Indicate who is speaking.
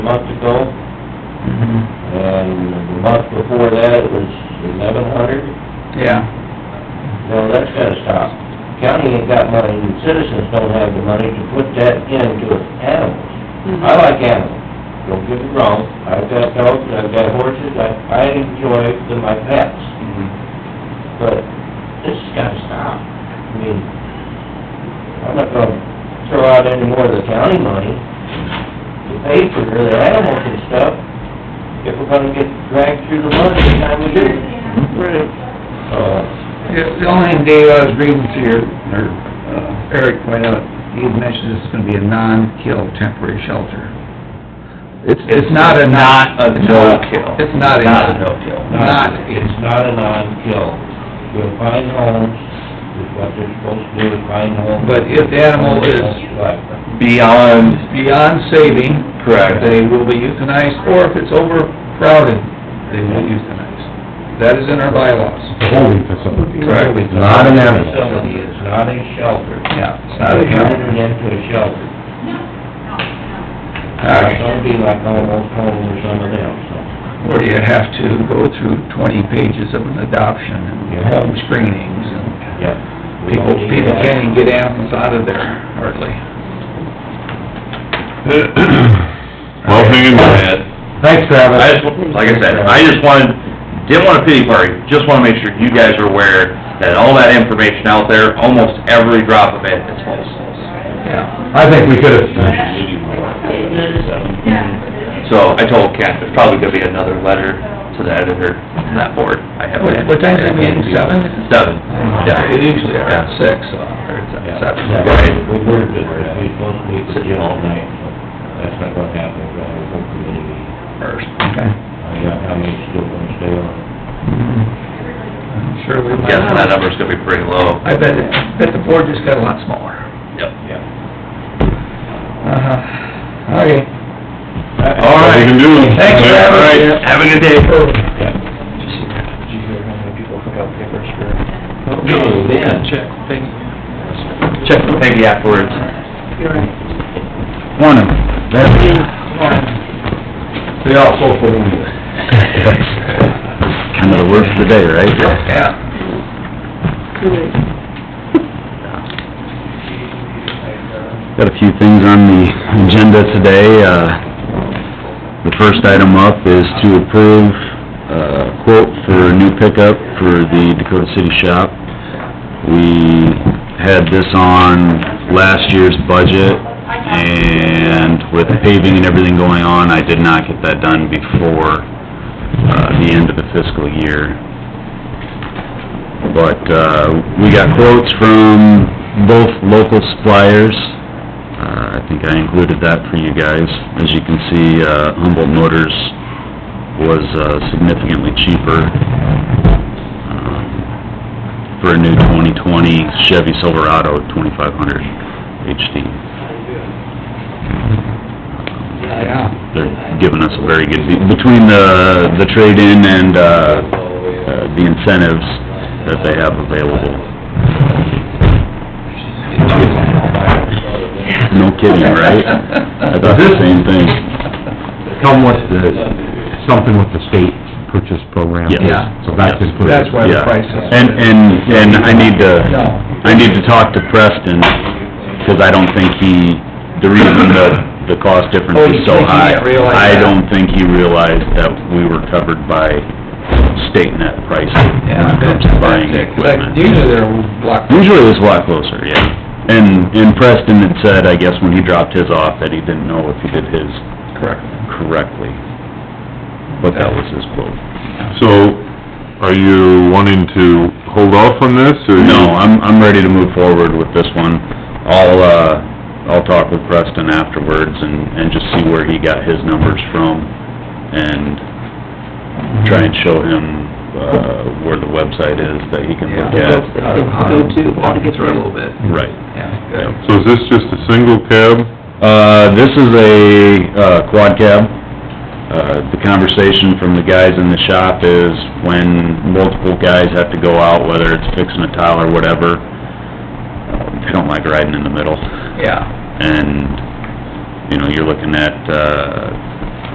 Speaker 1: month ago, and the month before that, it was eleven hundred.
Speaker 2: Yeah,
Speaker 1: Well, that's gotta stop. County ain't got money, and citizens don't have the money to put that into animals. I like animals, don't get me wrong, I've got dogs, I've got horses, I, I enjoy them, my pets, but this has gotta stop. I mean, I'm not gonna throw out any more of the county money to pay for their animals and stuff if we're gonna get dragged through the mud every time we do it.
Speaker 2: right.
Speaker 1: Uh,
Speaker 2: Yeah, The only thing, Dave, I was reading to your, or uh, Eric pointed out, he had mentioned this is gonna be a non-kill temporary shelter.
Speaker 3: It's,
Speaker 2: It's not a not...
Speaker 3: a no-kill.
Speaker 2: It's not a
Speaker 3: Not a
Speaker 2: not.
Speaker 3: no-kill.
Speaker 2: Not,
Speaker 1: It's not a non-kill. You'll find homes, is what they're supposed to do, find homes.
Speaker 2: But if the animal is-
Speaker 1: Right.
Speaker 3: Beyond,
Speaker 2: beyond saving.
Speaker 3: Correct.
Speaker 2: They will be euthanized, or if it's overcrowded, they will euthanize. That is in our bylaws.
Speaker 4: holding facility.
Speaker 3: Correct.
Speaker 4: Not an animal.
Speaker 1: Facility, it's not a shelter.
Speaker 2: Yeah. It's
Speaker 1: Not
Speaker 2: not a
Speaker 1: turning
Speaker 2: county.
Speaker 1: it into a shelter.
Speaker 2: All right.
Speaker 1: Don't be like almost home or some of them, so.
Speaker 2: where you have to go through twenty pages of an adoption and
Speaker 1: Yeah.
Speaker 2: home screenings and
Speaker 1: Yeah. We
Speaker 2: people,
Speaker 1: don't need
Speaker 2: people
Speaker 1: that.
Speaker 2: can't even get animals out of there hardly.
Speaker 5: Well, hang in my head.
Speaker 4: Thanks, Travis.
Speaker 5: I just, like I said, I just wanted, didn't want a pity party, just wanna make sure you guys are aware that all that information out there, almost every drop of it is false.
Speaker 2: Yeah.
Speaker 4: I think we could have,
Speaker 5: So I told Ken, there's probably gonna be another letter to the editor on that board. I have
Speaker 2: What- what time's that meeting, seven?
Speaker 5: Seven, yeah.
Speaker 2: It usually are at
Speaker 5: Yeah.
Speaker 2: six, so, or it's
Speaker 1: Yeah,
Speaker 2: at
Speaker 1: yeah,
Speaker 2: seven.
Speaker 1: right, we were, we supposed to meet with you all night, so that's not gonna happen, we're gonna have a full committee meeting.
Speaker 2: First. Okay.
Speaker 1: I got how many still gonna stay on?
Speaker 2: I'm Sure we might.
Speaker 5: Guessing that number's gonna be pretty low.
Speaker 2: I bet, it- bet the board just got a lot smaller.
Speaker 5: Yep.
Speaker 1: Yeah.
Speaker 2: Uh-huh. Okay.
Speaker 5: All right.
Speaker 4: You can do it.
Speaker 2: Thanks, Travis.
Speaker 5: All right, Have a good day.
Speaker 1: Okay, then.
Speaker 5: Check with Peggy afterwards.
Speaker 4: morning. They all so full of you.
Speaker 3: kind of the worst today, right?
Speaker 2: Yeah.
Speaker 3: Got a few things on the agenda today. Uh, The first item up is to approve uh, quote for a new pickup for the Dakota City Shop. We had this on last year's budget, and with the paving and everything going on, I did not get that done before uh, the end of the fiscal year. But, uh, we got quotes from both local suppliers. Uh, I think I included that for you guys. As you can see, uh, Humboldt Motors was uh, significantly cheaper um, for a new 2020 Chevy Silverado 2500 HD.
Speaker 2: Yeah.
Speaker 3: They're giving us a very good, deal between the, the trade-in and, uh, uh, the incentives that they have available. No kidding, right? I thought Uh, the same thing.
Speaker 4: Come with the, something with the state purchase program.
Speaker 3: Yeah.
Speaker 4: So that's
Speaker 3: Yeah.
Speaker 4: included.
Speaker 2: That's why the
Speaker 3: Yeah.
Speaker 2: price is.
Speaker 3: And, and, and I need to, I need to talk to Preston, 'cause I don't think he, the reason the, the cost difference
Speaker 2: Oh, you
Speaker 3: is so
Speaker 2: think he
Speaker 3: high.
Speaker 2: didn't realize
Speaker 3: I
Speaker 2: that?
Speaker 3: don't think he realized that we were covered by state net pricing when
Speaker 2: Yeah,
Speaker 3: it comes to buying equipment.
Speaker 2: Usually they're block.
Speaker 3: Usually it was a lot closer, yeah. And, and Preston had said, I guess, when he dropped his off, that he didn't know if he did his
Speaker 2: Correct.
Speaker 3: correctly. But that was his quote.
Speaker 4: So, are you wanting to hold off on this, or?
Speaker 3: No, I'm, I'm ready to move forward with this one. I'll, uh, I'll talk with Preston afterwards and, and just see where he got his numbers from and try and show him, uh, where the website is that he can look at.
Speaker 2: Go to, walk it through a little bit.
Speaker 3: Right.
Speaker 2: Yeah, good.
Speaker 4: So is this just a single cab?
Speaker 3: Uh, this is a, uh, quad cab. Uh, the conversation from the guys in the shop is when multiple guys have to go out, whether it's fixing a tile or whatever, uh, they don't like riding in the middle.
Speaker 2: Yeah,
Speaker 3: And, you know, you're looking at, uh,